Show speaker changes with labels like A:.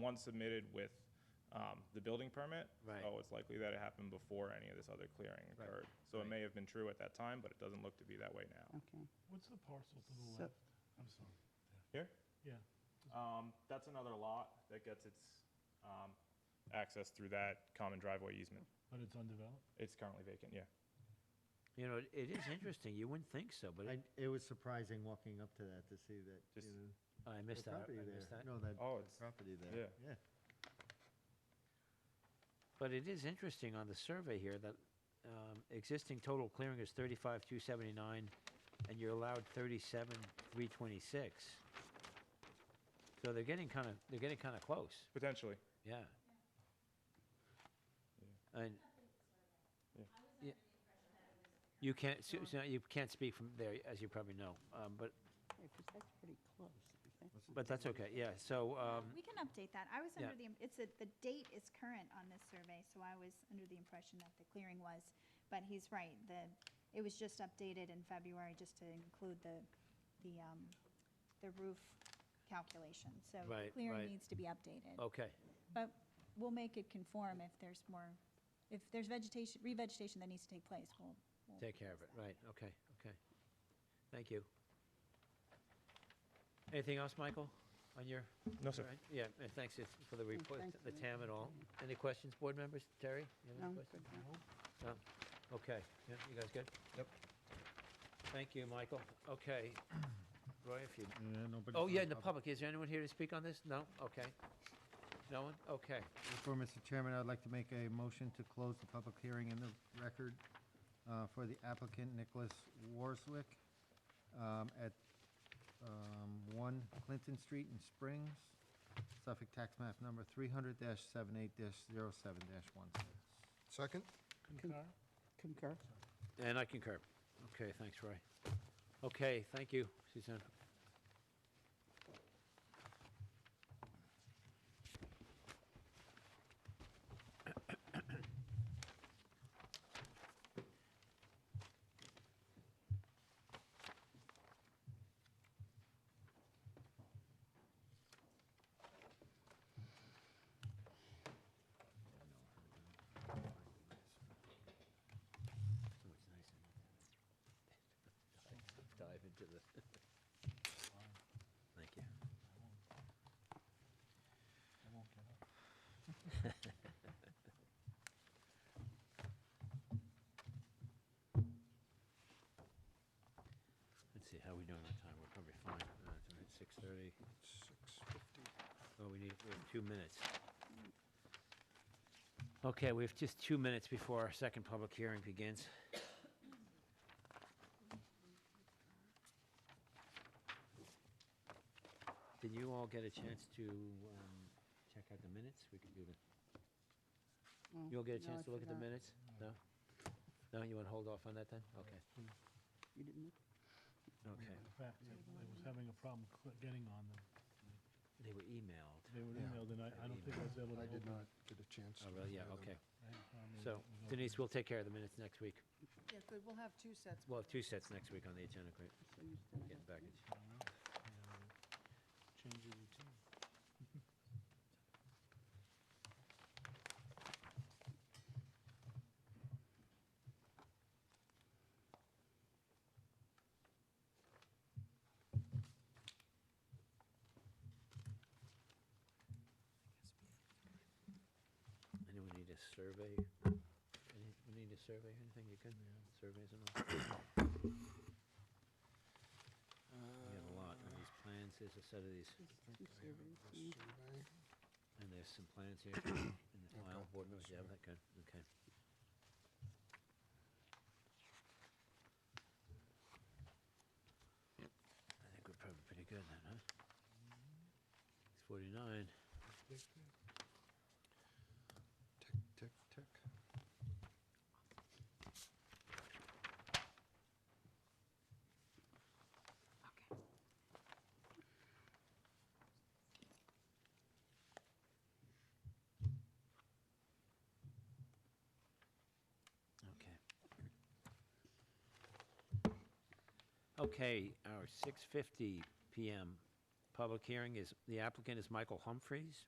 A: one submitted with um, the building permit.
B: Right.
A: So it's likely that it happened before any of this other clearing
B: Right,
A: occurred. So it may have been true at that time, but it doesn't look to be that way now.
C: Okay.
D: What's the parcel to the
C: So-
D: left? I'm sorry.
A: Here,
D: Yeah,
A: um, that's another lot that gets its um, access through that common driveway easement.
D: but it's undeveloped?
A: It's currently vacant, yeah.
E: You know, it it is interesting. You wouldn't think so, but
B: I,
E: it-
B: it was surprising walking up to that to see that,
A: Just-
B: you know.
E: oh, I
B: the
E: missed that. I
B: property
E: missed
B: there.
E: that.
B: No, that
A: Oh,
B: that
A: it's-
B: property there, yeah.
E: But it is interesting on the survey here that um, existing total clearing is 35,279, and you're allowed 37,326. So they're getting kind of, they're getting kind of close,
A: Potentially.
E: yeah. And Yeah. you can't, Su- Suzanne, you can't speak from there, as you probably know, um, but,
C: Because that's pretty close, isn't it?
E: but that's okay, yeah, so, um,
F: We can update that. I was
E: Yeah.
F: under the, im- it's, a- the date is current on this survey, so I was under the impression that the clearing was. But he's right, the, it was just updated in February just to include the, the, um, the roof calculation. So
E: Right,
F: clearing
E: right. Oh.
F: needs to be updated.
E: okay,
F: But we'll make it conform if there's more, if there's vegetation, revegetation that needs to take place, we'll. we'll
E: take care of it,
F: fix that.
E: right, okay, okay. Thank you. Anything else, Michael, on your?
A: No, sir.
E: All right. Yeah, and thanks if- for the report,
C: thank
E: the
C: you.
E: TAM and all. Any questions, board members? Terry? you have any
C: No,
E: questions?
C: good, no.
E: No? Okay, yeah, you guys good? Yep. Thank you, Michael. Okay. Roy, if you, oh, yeah, in the public, is there anyone here to speak on this? No? Okay. No one? Okay.
B: Before, Mr. Chairman, I'd like to make a motion to close the public hearing in the record uh, for the applicant Nicholas Warswick um, at um, 1 Clinton Street in Springs, Suffolk Tax Map Number 300-78-07-16.
G: Second?
D: Concur?
C: Concur?
E: And I concur. Okay, thanks, Roy. Okay, thank you, Suzanne. So much nicer. Dive- Dive into the. Thank you.
D: I won't get up.
E: Let's see, how are we doing on time? We're probably fine. Uh, It's six thirty.
G: Six fifty.
E: Oh, we need, we have two minutes. Okay, we have just two minutes before our second public hearing begins. Did you all get a chance to um, check out the minutes? We could do the.
C: No,
E: You'll get a
C: no,
E: chance
C: I
E: to look at the
C: forgot.
E: minutes? No? No, you want to hold off on that then? Okay,
C: You didn't look?
E: okay.
D: In fact, I I was having a problem cl- getting on them.
E: They were emailed.
D: They were
G: Yeah.
D: emailed, and I, I don't think I was able to.
G: I did
D: open
G: not get a chance.
E: Oh,
G: to
E: really? Yeah,
G: hear them.
E: okay.
D: it. I had a problem with
E: So
D: it was
E: Denise,
D: open.
E: we'll take care of the minutes next week.
H: Yeah, good, we'll have two sets.
E: We'll have two sets next week on the agenda, great.
C: So you still
E: Get
C: have-
E: the package.
D: Change your routine.
E: Anyone need a survey? Any- We need a survey, or anything you can, surveys and all? We have a lot of these plans, there's a set of these,
C: there's two surveys,
G: This
C: yeah.
G: survey.
E: and there's some plans here in the file,
G: Okay.
E: board members, you have that, good, okay. I think we're probably pretty good then, huh? It's forty-nine.
G: Tick, tick, tick.
H: Okay.
E: Okay. Okay, our 6:50 PM public hearing is, the applicant is Michael Humphreys,